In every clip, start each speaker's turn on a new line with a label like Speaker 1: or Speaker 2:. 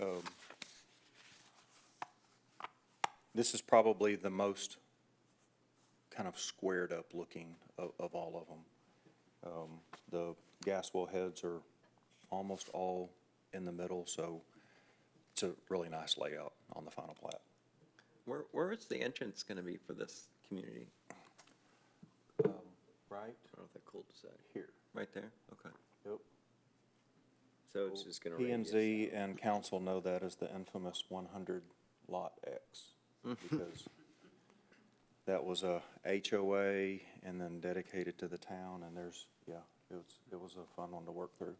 Speaker 1: um, this is probably the most kind of squared up looking of, of all of them. Um, The gas well heads are almost all in the middle, so it's a really nice layout on the final plat.
Speaker 2: Where, where is the entrance going to be for this community?
Speaker 1: Right
Speaker 2: I don't know if they're cul-de-sac.
Speaker 1: here.
Speaker 2: Right there? Okay.
Speaker 1: Yep.
Speaker 2: So it's just going to.
Speaker 1: P and Z and council know that as the infamous one hundred lot X. Because that was a HOA and then dedicated to the town and there's, yeah, it was, it was a fun one to work through.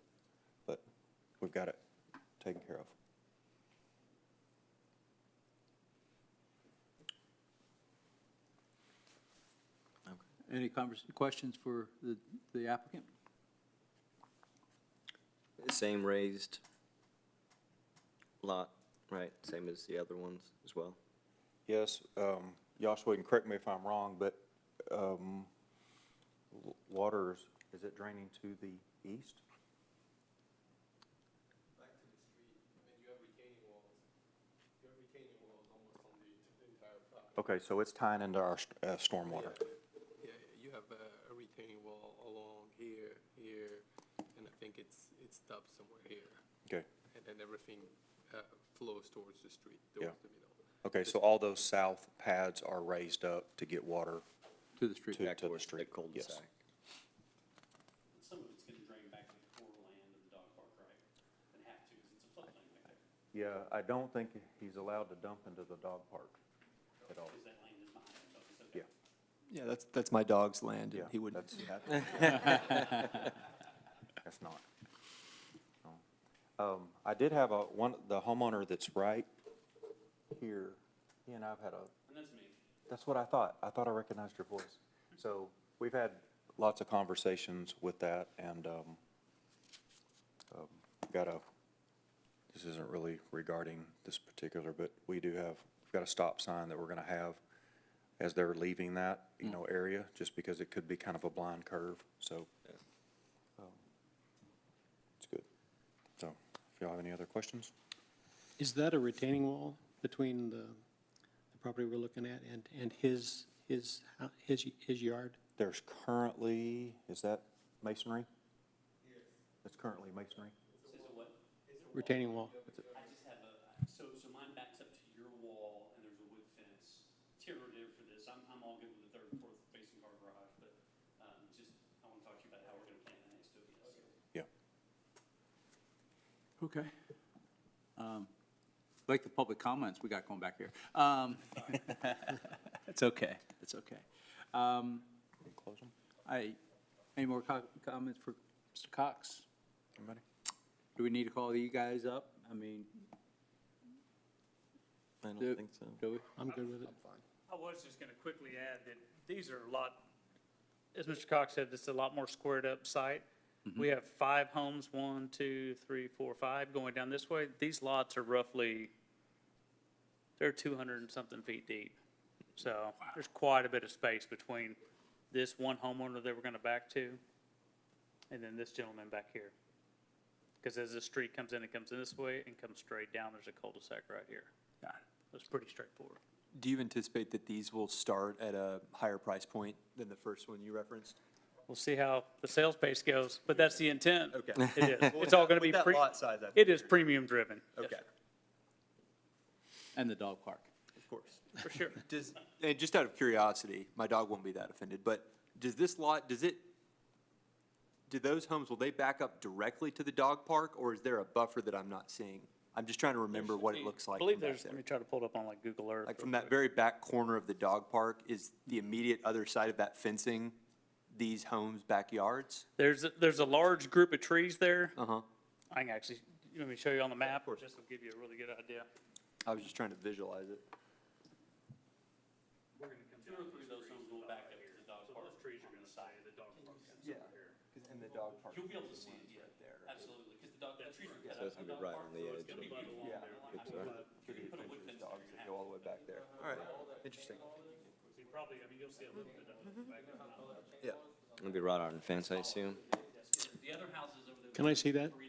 Speaker 1: But we've got it taken care of.
Speaker 3: Any convers, questions for the, the applicant?
Speaker 2: Same raised lot, right? Same as the other ones as well?
Speaker 1: Yes, um, Joshua, you can correct me if I'm wrong, but, um, w- water is, is it draining to the east?
Speaker 4: back to the street, and you have retaining walls. You have retaining walls almost on the t- entire property.
Speaker 1: Okay, so it's tying into our, st- uh, stormwater.
Speaker 4: Yeah, you have a, a retaining wall along here, here, and I think it's, it stops somewhere here.
Speaker 1: Okay,
Speaker 4: And then everything, uh, flows towards the street,
Speaker 1: Yeah.
Speaker 4: towards the middle.
Speaker 1: okay, so all those south pads are raised up to get water
Speaker 3: To the street.
Speaker 1: to, to the street. Yes.
Speaker 2: Cul-de-sac.
Speaker 5: Some of it's gonna drain back to the core land of the dog park, right? And have to, 'cause it's a floodplain back there,
Speaker 1: Yeah, I don't think he's allowed to dump into the dog park at all.
Speaker 5: because that land is mine, so it's okay.
Speaker 1: Yeah,
Speaker 6: Yeah, that's, that's my dog's land,
Speaker 1: yeah.
Speaker 6: and he wouldn't
Speaker 1: that's-
Speaker 6: do that.
Speaker 1: That's not. Um, I did have a, one, the homeowner that's right here, he and I've had a
Speaker 5: And that's me.
Speaker 1: That's what I thought. I thought I recognized your voice. So we've had lots of conversations with that and, um, um, got a, this isn't really regarding this particular, but we do have, we've got a stop sign that we're gonna have as they're leaving that, you know, area, just because it could be kind of a blind curve, so. um, It's good. So, if y'all have any other questions?
Speaker 7: Is that a retaining wall between the the property we're looking at and, and his, his, hou- his, y- his yard?
Speaker 1: There's currently, is that masonry? It's currently masonry?
Speaker 5: Says a what?
Speaker 7: Retaining wall?
Speaker 5: I just have a, so, so mine backs up to your wall and there's a wood fence. Terror there for this. I'm, I'm all good with the third and fourth facing car garage, but, um, just, I wanna talk to you about how we're gonna plan the next two years.
Speaker 1: Yeah.
Speaker 3: Okay. Um, Like the public comments we got going back here. Um, It's okay, it's okay. Um,
Speaker 1: Close them.
Speaker 3: I, any more co- comments for Mr. Cox?
Speaker 1: Anybody?
Speaker 3: Do we need to call you guys up? I mean,
Speaker 2: I
Speaker 3: do,
Speaker 2: don't think so.
Speaker 3: do we?
Speaker 7: I'm good with it.
Speaker 8: I was just going to quickly add that these are a lot, as Mr. Cox said, this is a lot more squared up site.
Speaker 3: Mm-hmm.
Speaker 8: We have five homes, one, two, three, four, five going down this way. These lots are roughly, they're two hundred and something feet deep. So there's quite a bit of space between this one homeowner that we're going to back to and then this gentleman back here. Because as the street comes in, it comes in this way and comes straight down, there's a cul-de-sac right here.
Speaker 3: Got it.
Speaker 8: It's pretty straightforward.
Speaker 6: Do you anticipate that these will start at a higher price point than the first one you referenced?
Speaker 8: We'll see how the sales pace goes, but that's the intent.
Speaker 6: Okay.
Speaker 8: It is. It's all gonna be
Speaker 6: With that
Speaker 8: pre-
Speaker 6: lot size, I
Speaker 8: It is premium driven. Yes,
Speaker 6: Okay,
Speaker 3: And the dog park.
Speaker 6: of course.
Speaker 8: For sure.
Speaker 6: Does, and just out of curiosity, my dog won't be that offended, but does this lot, does it, do those homes, will they back up directly to the dog park, or is there a buffer that I'm not seeing? I'm just trying to remember what it looks like
Speaker 8: I believe
Speaker 6: from back
Speaker 8: there's,
Speaker 6: there.
Speaker 8: let me try to pull it up on like Google Earth.
Speaker 6: Like from that very back corner of the dog park, is the immediate other side of that fencing these homes' backyards?
Speaker 8: There's, a- there's a large group of trees there.
Speaker 6: Uh-huh.
Speaker 8: I can actually, let me show you on the map, or just will give you a really good idea.
Speaker 6: I was just trying to visualize it.
Speaker 5: Two or three of those homes will back up to the dog park. Those trees are gonna stay, the dog park.
Speaker 6: Yeah, and the dog park.
Speaker 5: You'll be able to see it, yeah, absolutely, because the dog, the trees are cut
Speaker 2: So
Speaker 5: up.
Speaker 2: it's gonna be right on the edge
Speaker 5: It'll be right along
Speaker 6: Yeah.
Speaker 5: there.
Speaker 6: It's
Speaker 5: I mean,
Speaker 6: a-
Speaker 5: uh, if you put a wood fence there, you're gonna have
Speaker 6: all the way back there. All right, interesting.
Speaker 8: So you probably, I mean, you'll see a little bit of it back there.
Speaker 6: Yeah.
Speaker 2: It'll be right on the fence, I assume.
Speaker 5: The other houses over there.
Speaker 7: Can I see that?
Speaker 5: Three